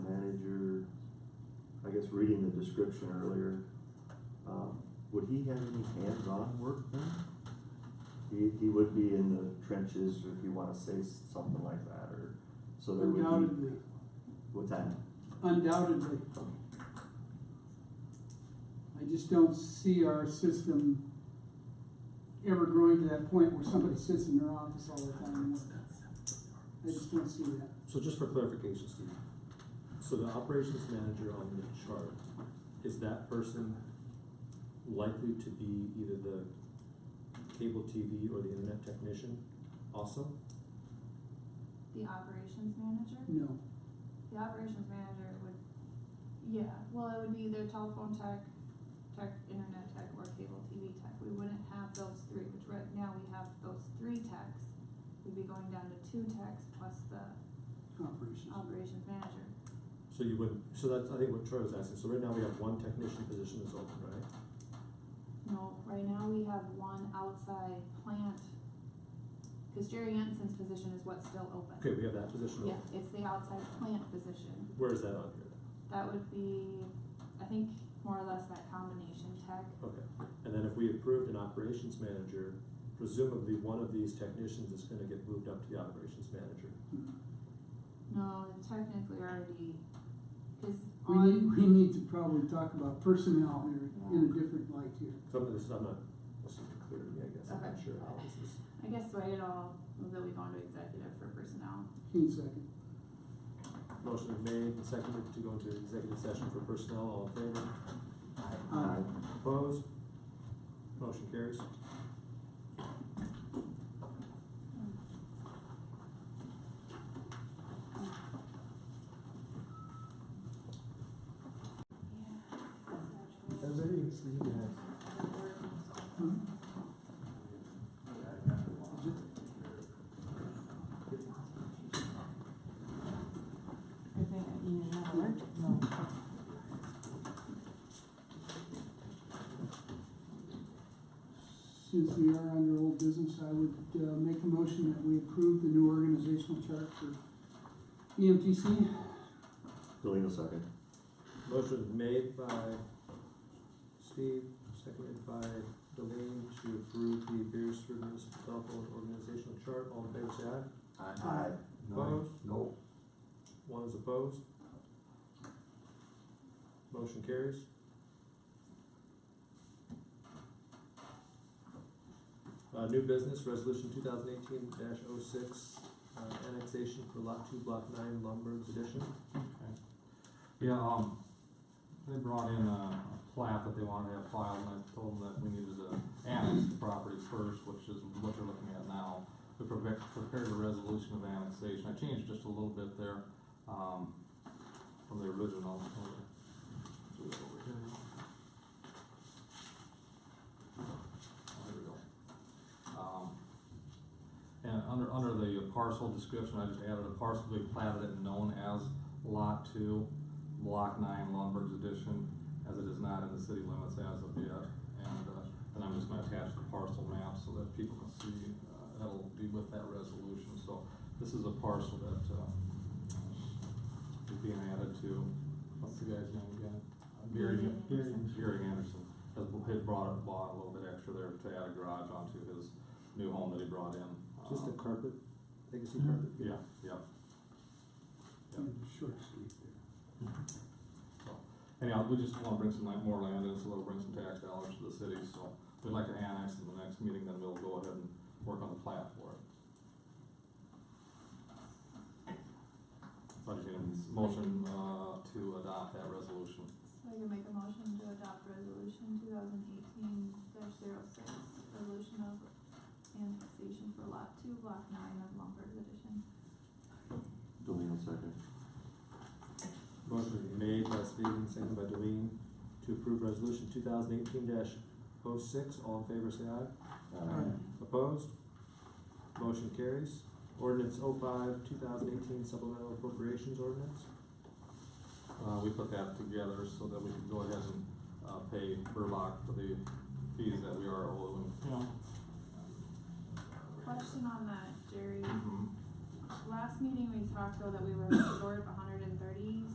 guess reading the description earlier, um, would he have any hands-on work then? He, he would be in the trenches, or if you wanna say s- something like that, or, so there would be, Undoubtedly, what's that? undoubtedly. I just don't see our system ever growing to that point where somebody sits in their office all the time. I just don't see that. So just for clarification, Steve, so the operations manager on the chart, is that person likely to be either the cable TV or the internet technician also? The operations manager? No, The operations manager would, yeah, well, it would be either telephone tech, tech, internet tech, or cable TV tech. We wouldn't have those three, which right now we have those three techs. We'd be going down to two techs plus the operations. operations manager. So you would, so that's, I think what Troy was asking, so right now we have one technician position that's open, right? No, right now we have one outside plant, cause Jerry Jensen's position is what's still open. Okay, we have that position Yeah, open, it's the outside plant position. where is that on here? That would be, I think, more or less that combination tech. Okay, and then if we approved an operations manager, presumably one of these technicians is gonna get moved up to the operations manager. No, technically already, cause We on. need, we need to probably talk about personnel here in a different light here. Some of this, I'm not, this isn't clear to me, I guess, I'm not sure how this is. I guess write it all, that we go into executive for personnel. Keen second. Motion is made and seconded to go into executive session for personnel, all in favor? Aye. Opposed? Motion carries. I think you need an alert. No. Since we are under old business, I would uh, make a motion that we approve the new organizational chart E for EMTC. Delino second. Motion is made by Steve, seconded by Delane to approve the Beersford Municipal Telephone Organizational Chart, all in favor, say aye. Aye. Opposed? No. One is opposed. Motion carries. Uh, new business, resolution two thousand eighteen 6 uh, annexation for lot two, block nine, Lumberg's addition. Yeah, um, they brought in a a plat that they wanted to have filed, and I told them that we needed to annex the property first, which is what you're looking at now. We prepared, prepared a resolution of annexation, I changed just a little bit there, um, from the original. Do it over here. Oh, There we go. Um, and under, under the parcel description, I just added a parcel to be platted and known as Lot Two, Block Nine, Lumberg's Edition, as it is not in the city limits as of yet. And, uh, then I'm just gonna attach the parcel map so that people can see, uh, that'll be with that resolution, so this is a parcel that, uh, is being added to, what's the guy's name again? Gary, Gary Gary Anderson, has, had brought, it- bought a little bit extra there to add a garage onto his new home that he brought in. Just a Um, carpet, legacy Mhm. carpet. Yeah, yeah, And a Short street there. Anyhow, we just wanna bring some like more land in, so that'll bring some tax dollars to the city, so we'd like to annex in the next meeting, then we'll go ahead and work on the plat for it. So I just need a motion, uh, to adopt that resolution. So I can make a motion to adopt resolution two thousand eighteen dash zero six, resolution of annexation for lot two, block nine of Lombard Edition. Delino second. Motion is made by Stephen, seconded by Delene, to approve resolution two thousand eighteen 6 all in favor, say aye. Aye. Opposed? Motion carries. Ordinance 05 2018 supplemental appropriations ordinance. Uh, we put that together so that we could go ahead and, uh, pay Burlock for the fees that we are owing. Question on that, Jerry. Mhm. Last meeting we talked though that we were short a hundred and thirty